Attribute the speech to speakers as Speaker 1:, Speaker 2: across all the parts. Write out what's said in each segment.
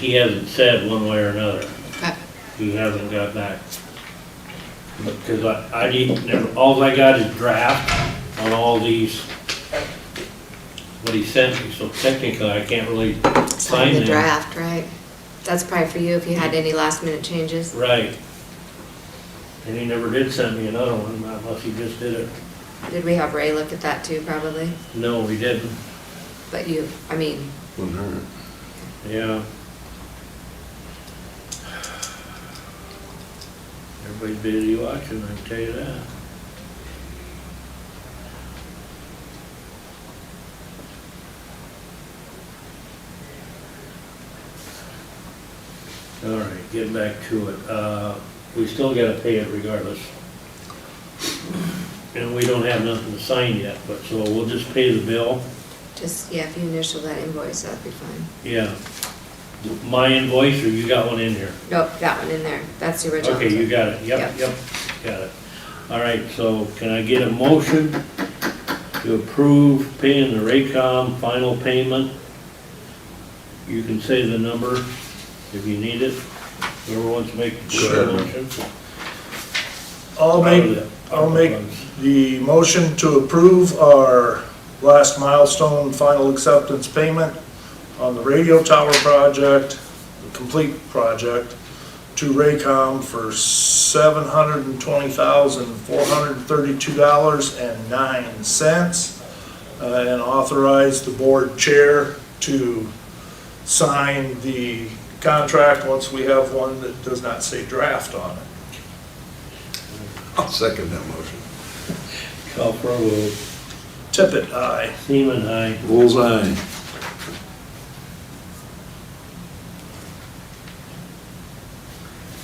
Speaker 1: He hasn't said one way or another.
Speaker 2: Okay.
Speaker 1: He hasn't got back. Because I, I didn't, never- all I got is draft on all these, what he sent me, so technically I can't really
Speaker 2: Sign
Speaker 1: sign
Speaker 2: the
Speaker 1: them.
Speaker 2: draft, right? That's probably for you if you had any last minute changes.
Speaker 1: Right. And he never did send me another one, unless he just did it.
Speaker 2: Did we have Ray look at that too, probably?
Speaker 1: No, he didn't,
Speaker 2: But you, I mean,
Speaker 3: Wouldn't hurt.
Speaker 1: yeah. Everybody's busy watching, I can tell you that. All right, get back to it. Uh, we still gotta pay it regardless. And we don't have nothing to sign yet, but so we'll just pay the bill.
Speaker 2: just, yeah, if you initial that invoice, that'd be fine.
Speaker 1: Yeah. My invoice, or you got one in here?
Speaker 2: Nope, that one in there. That's the original.
Speaker 1: Okay, you got it, yep,
Speaker 2: Yep.
Speaker 1: yep, got it. All right, so can I get a motion to approve paying the Raycom final payment? You can say the number if you need it, whoever wants to make
Speaker 3: Sure.
Speaker 1: the motion.
Speaker 4: I'll make, I'll make the motion to approve our last milestone final acceptance payment on the radio tower project, the complete project, to Raycom for seven hundred and twenty thousand, four hundred and thirty-two dollars and nine cents. uh, And authorize the board chair to sign the contract once we have one that does not say draft on it.
Speaker 3: I'll second that motion.
Speaker 1: Call for a vote.
Speaker 4: Tippit, aye.
Speaker 1: Seaman, aye.
Speaker 3: Bullseye.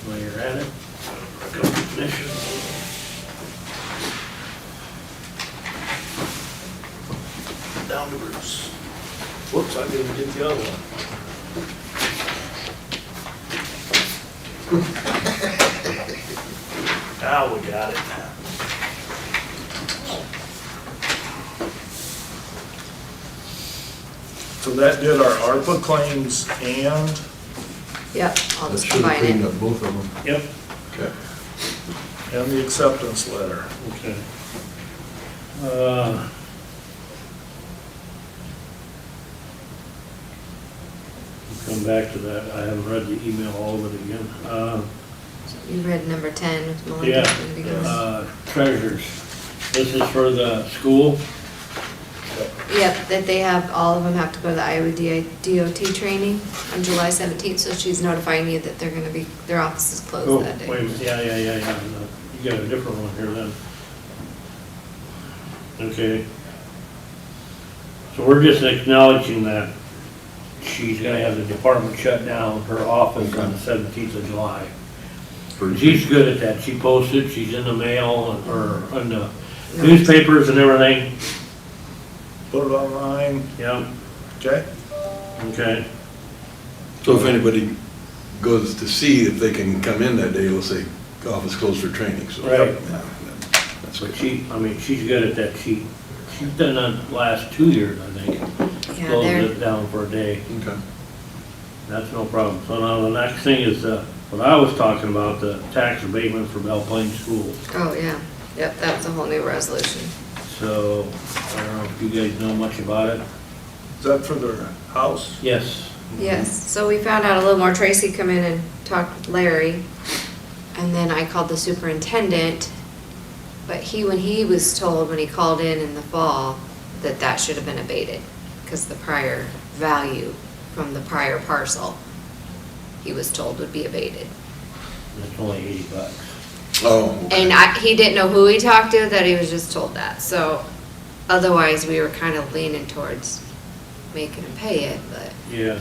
Speaker 1: While you're at it, recognition.
Speaker 4: Down to Bruce. Whoops, I didn't get the other one. Now Ah, we got it. So that did our ARPA claims and
Speaker 2: Yep, I'll
Speaker 3: That
Speaker 2: just
Speaker 3: should have
Speaker 2: combine
Speaker 3: cleaned
Speaker 2: it.
Speaker 3: up both of them.
Speaker 1: Yep,
Speaker 3: Okay.
Speaker 4: and the acceptance letter.
Speaker 1: Okay. Uh, we'll Come back to that, I haven't read the email all of it again. Uh,
Speaker 2: You read number ten with Melinda.
Speaker 1: Yeah,
Speaker 2: and begins.
Speaker 1: uh, treasures, this is for the school,
Speaker 2: Yep, that they have, all of them have to go to the Iowa DI DOT training on July seventeenth, so she's notifying you that they're gonna be, their office is
Speaker 1: Oh,
Speaker 2: closed
Speaker 1: wait,
Speaker 2: that
Speaker 1: a
Speaker 2: day.
Speaker 1: minute. yeah, yeah, yeah, yeah, no, you got a different one here then. Okay. So we're just acknowledging that she's gonna have the department shut down, her office on the seventeenth of July. She's good at that, she posted, she's in the mail, and- or in the newspapers and everything,
Speaker 4: Put it online,
Speaker 1: yeah,
Speaker 4: okay?
Speaker 1: okay,
Speaker 3: So if anybody goes to see if they can come in that day, it'll say office closed for training, so.
Speaker 1: Right.
Speaker 3: Yeah, That's
Speaker 1: but
Speaker 3: what
Speaker 1: she, I mean, she's good at that, she, she's done that the last two years, I think,
Speaker 2: Yeah,
Speaker 1: closed
Speaker 2: they're,
Speaker 1: it down for a day.
Speaker 3: Okay.
Speaker 1: That's no problem. So now the next thing is, uh, what I was talking about, the tax abatement for Belle Plaine School.
Speaker 2: oh, yeah, yep, that was a whole new resolution.
Speaker 1: So, I don't know if you guys know much about it?
Speaker 4: Is that for their house?
Speaker 1: Yes.
Speaker 2: Yes, so we found out a little more, Tracy come in and talked with Larry, and then I called the superintendent, but he, when he was told, when he called in in the fall, that that should have been abated, because the prior value from the prior parcel, he was told would be abated.
Speaker 1: It's only eighty bucks.
Speaker 3: Oh, okay.
Speaker 2: And I, he didn't know who he talked to, that he was just told that, so otherwise, we were kind of leaning towards making him pay it, but,
Speaker 1: Yeah.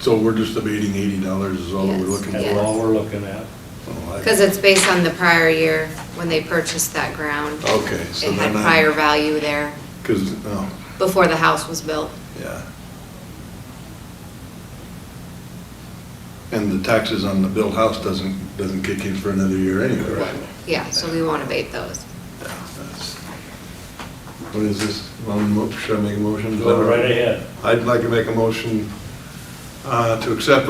Speaker 3: so we're just debating eighty dollars is all we're
Speaker 2: Yes.
Speaker 3: looking
Speaker 1: That's
Speaker 2: Yeah.
Speaker 3: for?
Speaker 1: all we're looking at.
Speaker 3: Oh, I-
Speaker 2: because it's based on the prior year, when they purchased that ground.
Speaker 3: Okay, so
Speaker 2: It had
Speaker 3: then
Speaker 2: prior
Speaker 3: I,
Speaker 2: value there
Speaker 3: because, oh,
Speaker 2: before the house was built.
Speaker 3: yeah. And the taxes on the built house doesn't, doesn't kick in for another year anyway, right?
Speaker 2: Yeah, so we won't abate those.
Speaker 3: Yeah, that's- What is this? Um, mo- Should I make a motion?
Speaker 1: Go right ahead.
Speaker 3: I'd like to make a motion uh, to accept